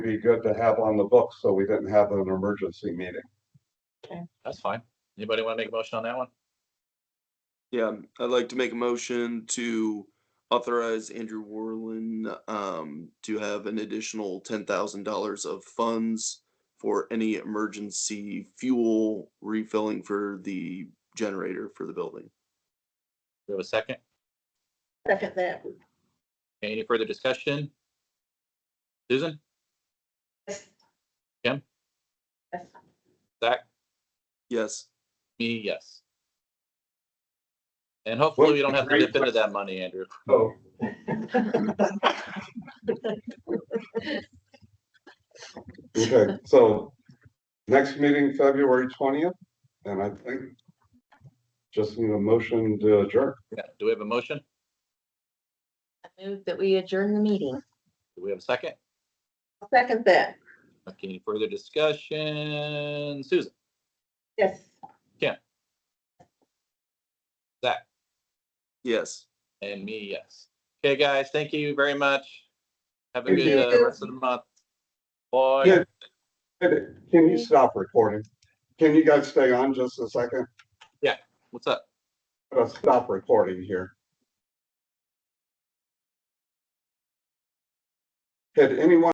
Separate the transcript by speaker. Speaker 1: be good to have on the books, so we didn't have an emergency meeting.
Speaker 2: That's fine. Anybody want to make a motion on that one?
Speaker 3: Yeah, I'd like to make a motion to authorize Andrew Warlin um to have an additional ten thousand dollars of funds for any emergency fuel refilling for the generator for the building.
Speaker 2: We have a second.
Speaker 4: Second that.
Speaker 2: Okay, Any further discussion? Susan,
Speaker 4: Yes.
Speaker 2: Kim?
Speaker 4: Yes.
Speaker 2: Zach,
Speaker 3: Yes,
Speaker 2: me, yes. And hopefully we don't have to
Speaker 1: Great
Speaker 2: dip into that money, Andrew.
Speaker 1: So Okay, so next meeting, February twentieth, and I think just need a motion to adjourn.
Speaker 2: Yeah, Do we have a motion?
Speaker 4: I Move that we adjourn the meeting.
Speaker 2: Do we have a second?
Speaker 4: Second that.
Speaker 2: Okay, any further discussion? Susan,
Speaker 4: Yes.
Speaker 2: Zach,
Speaker 3: yes.
Speaker 2: and me, yes. Okay, guys, thank you very much. Have a
Speaker 1: Thank
Speaker 2: good uh,
Speaker 4: you.
Speaker 2: rest of the month. Boy.
Speaker 1: Yeah. Can you stop recording? Can you guys stay on just a second?
Speaker 2: What's up?
Speaker 1: I'm gonna stop recording here. Had anyone?